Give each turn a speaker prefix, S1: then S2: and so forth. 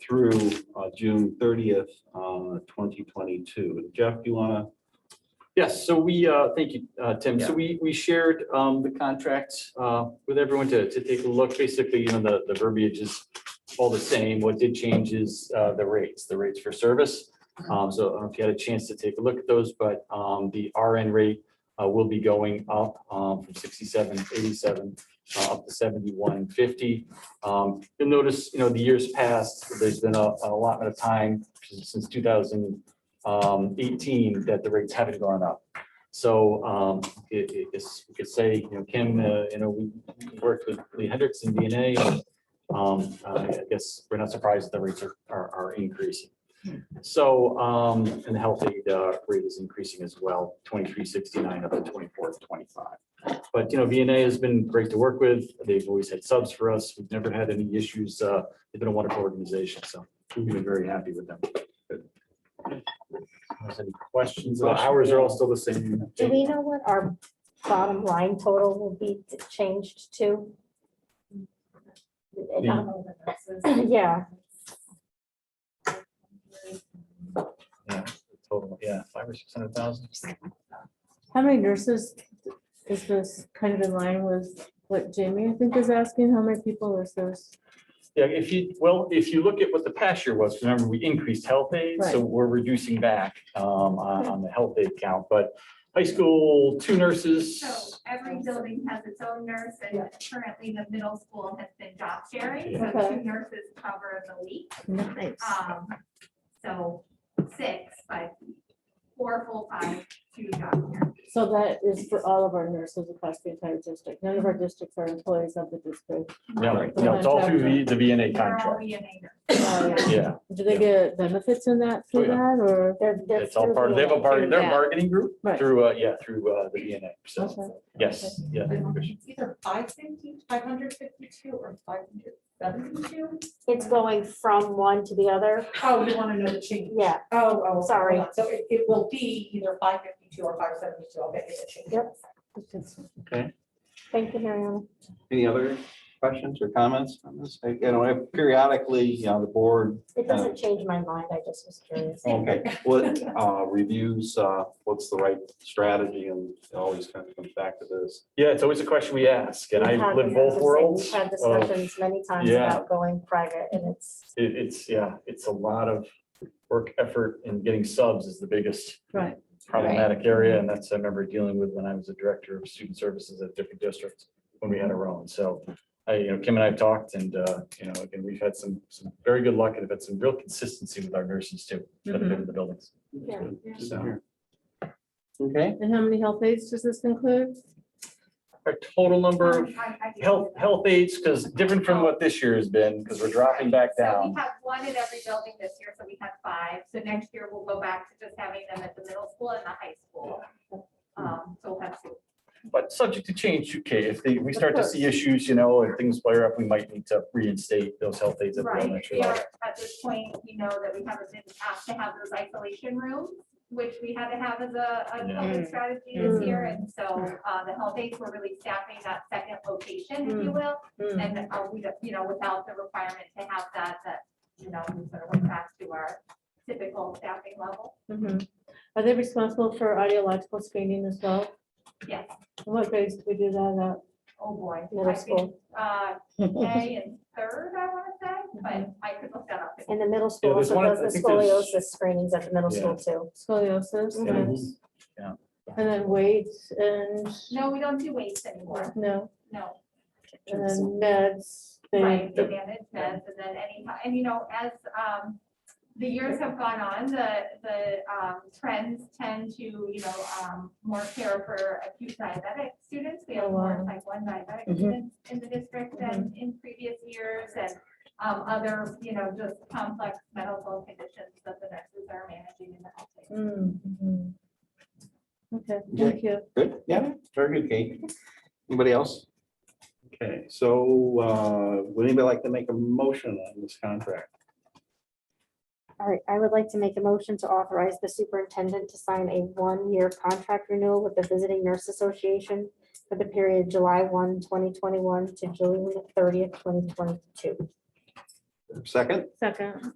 S1: through uh, June thirtieth, uh, twenty twenty-two. Jeff, do you want
S2: Yes, so we, uh, thank you, uh, Tim.
S1: Yeah.
S2: So we, we shared um, the contracts uh, with everyone to, to take a look. Basically, you know, the, the verbiage is all the same. What did change is uh, the rates, the rates for service. Um, So I don't know if you had a chance to take a look at those, but um, the RN rate uh, will be going up um, from 67, 87 uh, up to 7150. Um, You'll notice, you know, the years past, there's been a a allotment of time since 2000 um, eighteen that the rates haven't gone up. So, um, it, it- it's, you could say, you know, Kim, uh, you know, we we worked with Lee Hendricks and DNA. and, Um, I I guess we're not surprised the rates are, are, are increasing. So, um, and the health aid, uh, rate is increasing as well, twenty-three sixty-nine up to twenty-four twenty-five. But, you know, VNA has been great to work with. They've always had subs for us. We've never had any issues. Uh, they've been a wonderful organization, so we've been very happy with them. Any questions? The hours are all still the same.
S3: Do we know what our bottom line total will be t- changed to? Yeah,
S2: Yeah, total, yeah, five or six hundred thousand.
S4: How many nurses is this kind of in line with what Jamie, I think, is asking? How many people is this?
S2: Yeah, if you, well, if you look at what the past year was, remember, we increased health aid, so
S4: Right.
S2: we're reducing back um, on on the health aid count, but high school, two nurses.
S5: So every building has its own nurse and currently the middle school has been job sharing, so
S4: Okay.
S5: two nurses cover the week.
S4: Nice.
S5: Um, so six, but four full time, two job sharing.
S4: So that is for all of our nurses across the entire district. None of our districts are employees of the district.
S2: No, no, it's all through the, the VNA
S5: They're all
S2: contract.
S5: VNA nurses.
S4: Uh,
S2: Yeah,
S4: Do they get benefits in that
S2: Oh,
S4: through
S2: yeah.
S4: that or?
S3: they're, they're.
S2: it's all part of, they have a bargaining, they're a bargaining group
S4: Right.
S2: through, uh, yeah, through uh, the VNA.
S4: Okay.
S2: So, yes, yeah.
S6: It's either five fifty, five hundred fifty-two, or five hundred seventy-two.
S3: It's going from one to the other,
S6: Oh, you wanna know the change?
S3: yeah,
S6: Oh, oh. hold
S3: Sorry.
S6: on. So it, it will be either five fifty-two or five seventy-two, I'll get you the change.
S3: Yep.
S4: It's
S3: thank you, Mariana.
S1: to, any other questions or comments on this? You know, periodically, you know, the board
S3: It
S2: Uh,
S3: doesn't change my mind, I just was curious.
S2: oh,
S1: Okay, what uh, reviews, uh, what's the right strategy and it always kind of comes back to this.
S2: Yeah, it's always a question we ask, and
S3: We've
S2: I
S3: had-
S2: live both worlds.
S3: We've had
S2: of-
S3: discussions many times
S2: Yeah.
S3: about going private and it's,
S2: It, it's, yeah, it's a lot of work effort and getting subs is the biggest
S4: Right.
S2: problematic area. And that's, I remember dealing with when I was a director of student services at different districts when we had our own. So, I, you know, Kim and I have talked and, uh, you know, again, we've had some, some very good luck and have had some real consistency with our nurses too, that have been in the buildings.
S3: Yeah.
S1: So. Okay,
S4: And how many health aides does this include?
S2: Our total number of
S5: I- I do
S2: health,
S5: that.
S2: health aides, because different from what this year has been, because we're dropping back
S5: So
S2: down.
S5: we have one in every building this year, so we have five. So next year we'll go back to just having them at the middle school and the high school. Um, so we'll have two.
S2: But subject to change, okay, if they, we start to see issues, you know, and things flare up, we might need to reinstate those health aides at the
S5: Right,
S2: elementary
S5: we
S2: level.
S5: are, at this point, we know that we haven't been asked to have those isolation rooms, which we had to have as a, a
S2: Yeah.
S3: Mm.
S5: COVID strategy this year, and so, uh, the health aides were really staffing that second location, if
S3: Mm.
S5: you will, and, uh, we, don't- you know, without the requirement to have that, that, you know, we sort of went back to our typical staffing level,
S4: Mhm. Are they responsible for audiological screening as well?
S5: yes,
S4: And What grades do we do that
S5: oh boy. I
S3: middle
S5: think,
S3: school,
S5: Uh,
S4: at?
S5: K and third, I wanna say, but I could look that up.
S3: and the middle school
S2: there's
S3: also
S2: one-
S3: does
S2: I
S3: the
S2: think there's-
S3: scoliosis screenings at the middle school too.
S4: Scoliosis.
S2: Yeah.
S4: yes.
S2: Yeah.
S4: And then weights and,
S5: No, we don't do weights anymore,
S4: no,
S5: no.
S4: and then meds. they-
S5: Right, the management, and then any, and you know, as um, the years have gone on, the, the um, trends tend to, you know, um, more care for acute diabetic students. We have more
S4: Oh, wow. Mm-hmm.
S5: type one diabetic
S3: Mhm.
S5: students in the district than in previous years, and um, other, you know, just complex medical conditions that the nurses are managing in the health. care.
S4: Mm, mhm. Okay, thank you.
S1: good, yeah, very good, Kate. Anybody else? Okay, so uh, would anybody like to make a motion on this contract?
S3: All right, I would like to make a motion to authorize the superintendent to sign a one-year contract renewal with the Visiting Nurse Association for the period July 1, 2021 to June thirtieth, twenty twenty-two.
S1: Second?
S4: Second.